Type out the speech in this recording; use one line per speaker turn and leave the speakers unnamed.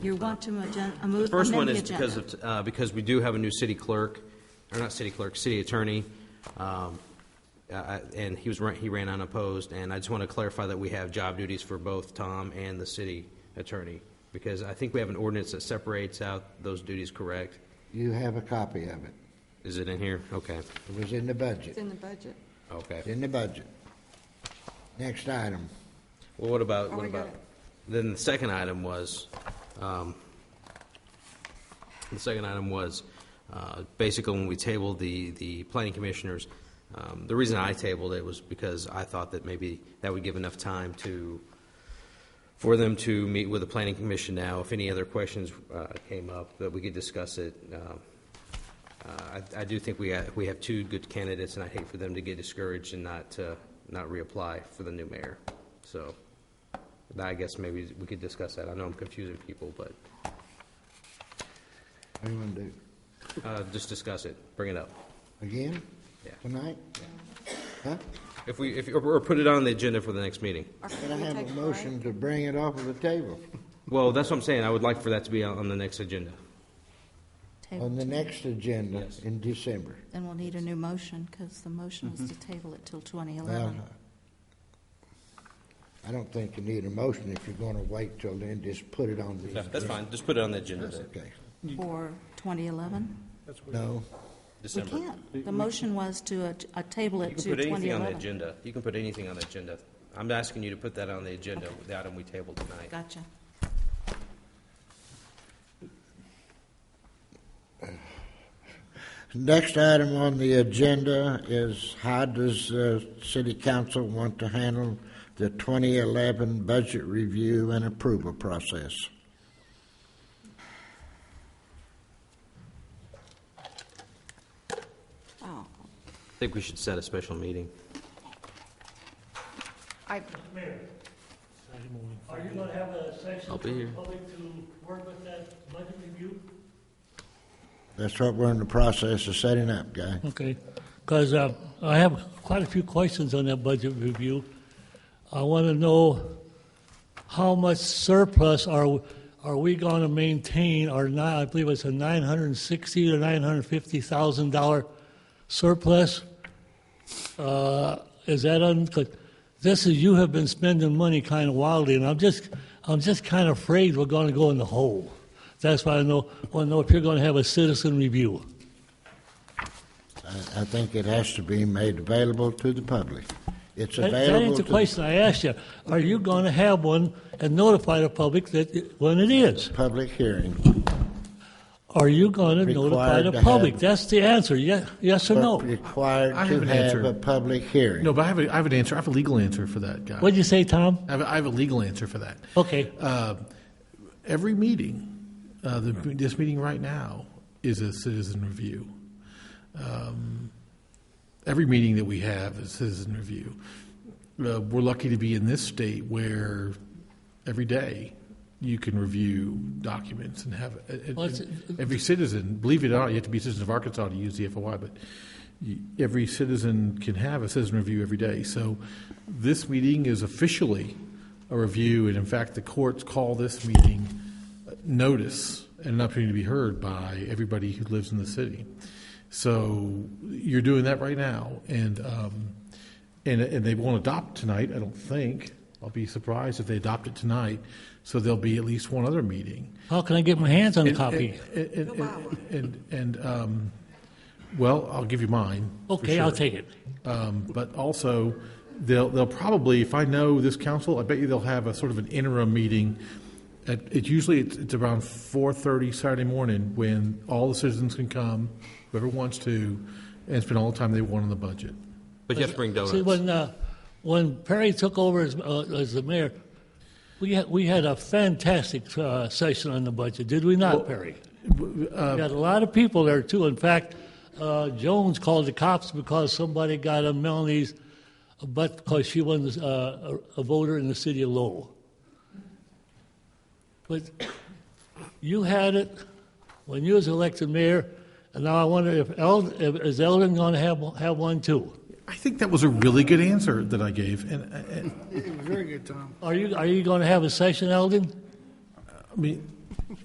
You want to agen- a move- amend the agenda?
First one is because of, uh, because we do have a new city clerk, or not city clerk, city attorney, um, uh, I- and he was, ran- he ran unopposed, and I just want to clarify that we have job duties for both Tom and the city attorney, because I think we have an ordinance that separates out those duties, correct?
You have a copy of it.
Is it in here? Okay,
It was in the budget.
It's in the budget.
okay.
It's in the budget. Next item.
Well, what about,
Oh,
what
we got
about,
it.
then the second item was, um, the second item was, uh, basically when we tabled the, the planning commissioners, um, the reason I tabled it was because I thought that maybe that would give enough time to, for them to meet with the planning commission now. If any other questions, uh, came up, that we could discuss it, um, uh, I I do think we ha- we have two good candidates, and I hate for them to get discouraged and not, uh, not reapply for the new mayor. So but I guess maybe we could discuss that. I know I'm confusing people, but
What do you want to do?
uh, just discuss it, bring it up.
Again?
Yeah.
Tonight? Huh?
If we, if or or put it on the agenda for the next meeting.
Or can
Can I
we
have
take
a
break?
motion to bring it off of the table?
Well, that's what I'm saying, I would like for that to be on on the next agenda.
On the next agenda
Yes.
in December.
Then we'll need a new motion, because the motion was to
Mm-hmm.
table it till
Well,
2011.
I don't think you need a motion if you're going to wait till then, just put it on the.
Yeah, That's fine, just put it on the agenda, then,
Okay.
For 2011?
No,
We
December.
can't. The motion was to uh, t- uh, table
You
it to
can put anything on the
2011.
agenda, you can put anything on the agenda. I'm asking you to put that on the agenda, the item we tabled tonight.
Gotcha.
Next item on the agenda is how does uh city council want to handle the 2011 budget review and approval process?
Oh,
I think we should set a special meeting.
I,
Are you gonna have a session
I'll
for
be
the
here.
public to work with that budget review?
That's what we're in the process of setting up, Guy.
Okay, because I have quite a few questions on that budget review. I want to know how much surplus are, are we going to maintain or not? I believe it's a nine hundred and sixty to nine hundred and fifty thousand dollar surplus. Uh, Is that un, 'cause this is, you have been spending money kind of wildly, and I'm just, I'm just kind of afraid we're going to go in the hole. That's why I know, want to know if you're going to have a citizen review.
I, I think it has to be made available to the public. It's
That-
available
That ain't the
to
question I asked you. Are you going to have one and notify the public that, it- when it is?
the public hearing.
Are you going to notify
Required
the
to
public?
have-
That's the answer, ye- yes or no.
Required
I
to
have an
have
answer.
a public hearing.
No, but I have, a, I have an answer. I have a legal answer for that, guy.
What'd you say, Tom?
I, have a, I have a legal answer for that.
Okay,
Uh, every meeting, uh, the, this meeting right now is a citizen review. Um, every meeting that we have is citizen review. Uh, we're lucky to be in this state where every day you can review documents and have a- a-
Well, it's-
every citizen. Believe it or not, you have to be a citizen of Arkansas to use the FOI, but you, every citizen can have a citizen review every day. So this meeting is officially a review, and in fact, the courts call this meeting uh, notice and an opportunity to be heard by everybody who lives in the city. So you're doing that right now, and um, and and they won't adopt tonight. I don't think. I'll be surprised if they adopt it tonight. So there'll be at least one other meeting.
how can I get my hands on a
And-
copy?
And, and, and, and, and, um, well, I'll give you mine. for
Okay, I'll
sure.
take it.
Um, but also, they'll, they'll probably, if I know this council, I bet you they'll have a sort of an interim meeting. At, it usually it's, it's around four thirty Saturday morning when all the citizens can come, whoever wants to, and spend all the time they want on the budget.
But you have to bring
See,
donuts.
when, uh, when Perry took over as, uh, as the mayor, we had, we had a fantastic, uh, session on the budget, did we not, Perry? We had a lot of people there too. In fact, uh, Jones called the cops because somebody got on Melanie's butt because she was uh, a, a voter in the city of Lowell. But you had it when you was elected mayor, and now I wonder if Eld, if, is Eldon going to have have one too?
I think that was a really good answer that I gave, and, and
Very good, Tom.
Are you are you going to have a session, Eldon?
I mean,